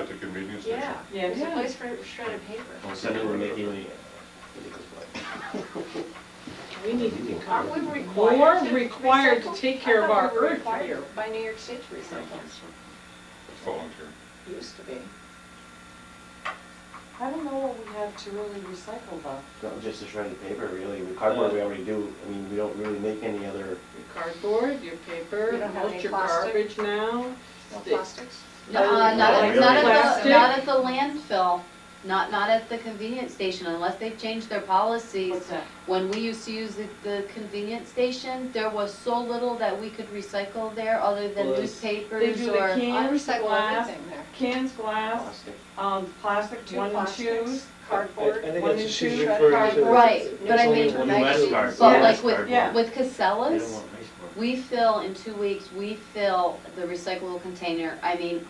at the convenience station. Yeah, Yeah, there's a yeah. place for shredded paper. Don't Send it get to rid of Nikki it. Lee. Nicholas Black. We need to be Aren't we covered. required? More to required to recycle? take I care of thought our we were earth. required By New York State to recycle, It's volunteer. used to be. I don't know what we have to really recycle though. Not just the shredded paper, really, with cardboard we already do, I mean, we don't really make any other, Your cardboard, your You paper, don't have most any your plastic? garbage now. No Stick. plastics? Uh, not, at- Oh, Really? not at Plastic? the, not at the landfill, not, not at the convenience station, unless they've changed their policies. that? When we used to use the, the convenience station, there was so little that we could recycle there, other than Well, it's- They newspapers do the or. I cans, recycle glass, everything there. cans, glass, plastic. um, plastic, Two one and plastics, twos. Cardboard. I- I think one that's and she's two, referring to cardboard. Right, but I It's only mean, one I- less card, but one like less with, cardboard. Yeah. with They Casellas, don't want nice cardboard. we fill, in two weeks, we fill the recyclable container, I mean,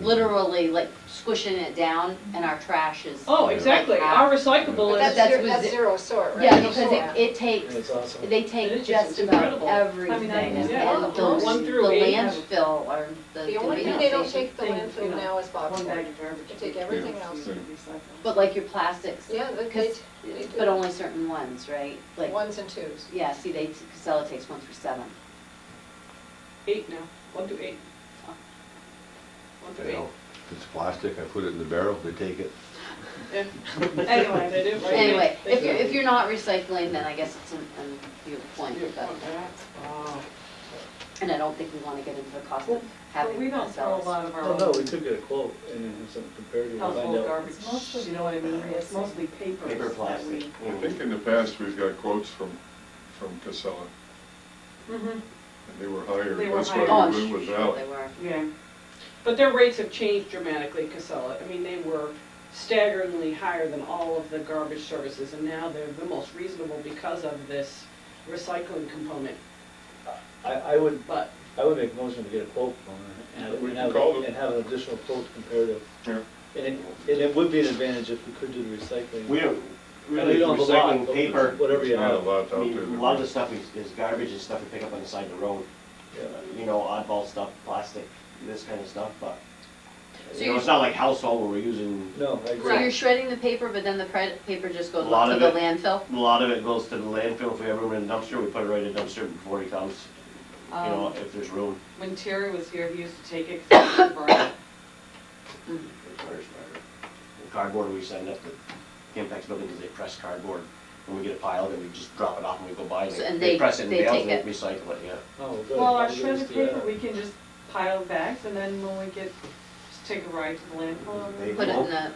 literally, like squishing it down, and our trash is. Oh, exactly, our But recyclable That's is, that's zero, with that's zi- zero sort, right? Yeah, Zero because it, sort. it takes And it's awesome. They It take is just just about incredible. I mean, everything, I- and yeah, and the, those one the through eight have- landfill or the The only thing convenience they don't station. take the Things, you landfill know, now is one bag boxboard. of garbage. They take everything Yeah. else. Yeah. But like your plastics, Yeah, they- they, 'cause- they do. but only certain ones, right? Like, ones and twos. yeah, see, they, Casella takes one through seven. Eight now, one through eight. One through You know, if it's plastic, I put it in the barrel, they take it. eight. Yeah. Anyway, they do, right? Anyway, They if do. you're, if you're not recycling, then I guess it's an, an your point, Your but, point, that's- wow. and I don't think we wanna get into the cost Well, of But having we don't throw a Casellas. lot of our Oh, no, we own could get a quote and then have some comparative, and find household out. garbage, you know what I mean, it's mostly papers. Paper, that plastic. we- I Mm. think in the past, we've got quotes from, from Casella, Mhm. and they were higher. They were That's higher. why Oh, we went I'm with sure Valley. they were. Yeah, but their rates have changed dramatically, Casella. I mean, they were staggeringly higher than all of the garbage services, and now they're the most reasonable because of this recycling component, I, I would, but I would make a motion to get a quote from her, and have- We and can have, call them. and have an additional quote comparative. Yeah. And it, and it would be an advantage if we could do the recycling. We don't And really we don't have a lot, recycling but paper, Whatever you There's not a have, lot out I there. mean, a that lot of we- the stuff is, is garbage and stuff we pick up on the side of the road, yeah. you know, oddball stuff, plastic, this kind of stuff, but, So you know, you're- it's not like household where we're using, No, I So agree. you're shredding the paper, but then the pre- paper just goes A lot to of the it- landfill? a lot of it goes to the landfill, if we ever run a dumpster, we put it right in the dumpster before he comes, you know, Um, if there's room. when Terry was here, he used to take it, 'cause he could burn it. The Cardboard, we send up the Campex building, because they press cardboard, and we get a pile, then we just drop it off and we go buy it. So- and they- press it in they bales take and it. Recycle it, yeah. Oh, good. Well, our I'll give shredded this to paper, that. we can just pile bags, and then when we get, just take a ride to the landfill. They- and- Put it in the,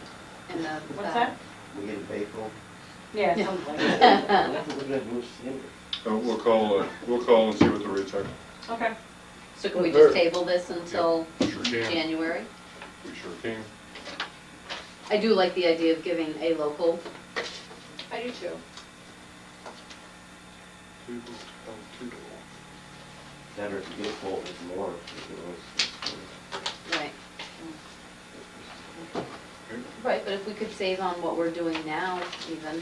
in the. What's uh, that? We get a bagel. Yeah, Yeah. something like that. Uh, We'll call, uh, we'll call and see what the rates are. Okay. So can we Sure. just table this until Sure can, January? we sure can. I do like the idea of giving a local, I do too. Toodle, oh, toodle. Better if you get a quote with more. you can always- right? Right, but if we could save on what we're doing now even,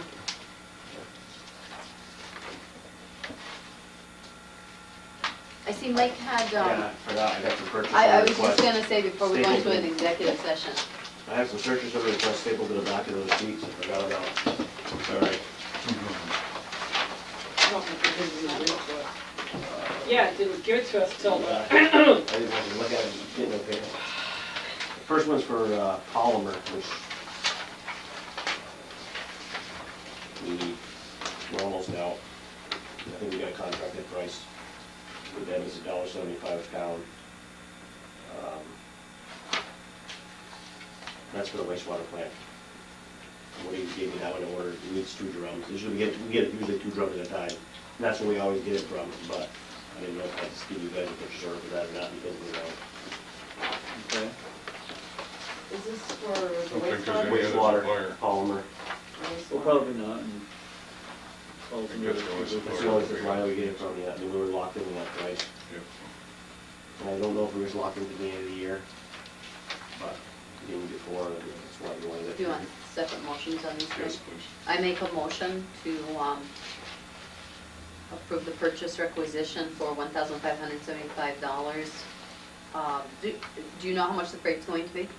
I see Mike had, Yeah, um, I forgot, I got some purchase I, I order was just requests. gonna say before we go into an Stapled. executive session, I have some purchase order requests stapled to the back of those sheets, I forgot about. Sorry. Yeah, it didn't give it to us till uh, the I didn't have to look at it, didn't know, okay. First one's for uh, polymer, which we, we're almost out. I think we got a contracted price with them, it's a dollar seventy-five a pound. Um, That's for the wastewater plant. What do you gave me that one to order, it needs two drums, usually we get, we get usually two drums at a time. And that's where we always get it from, but I didn't know if I had to give you guys a purchase order for that or not, because we don't. Okay. Is this for the Don't think there's any- wastewater? wastewater supplier. polymer. Well, probably not, and. ultimately, guess there was people- That's the only supplier we get it from, yeah, I mean, we were locked in with that price. Yep. And I don't know if we was locked in at the end of the year, but even before, that's why we wanted it. do you want separate motions on these Yes, things? please. I make a motion to um, approve the purchase requisition for $1,575. Uh, Do do you know how much the freight's going to be?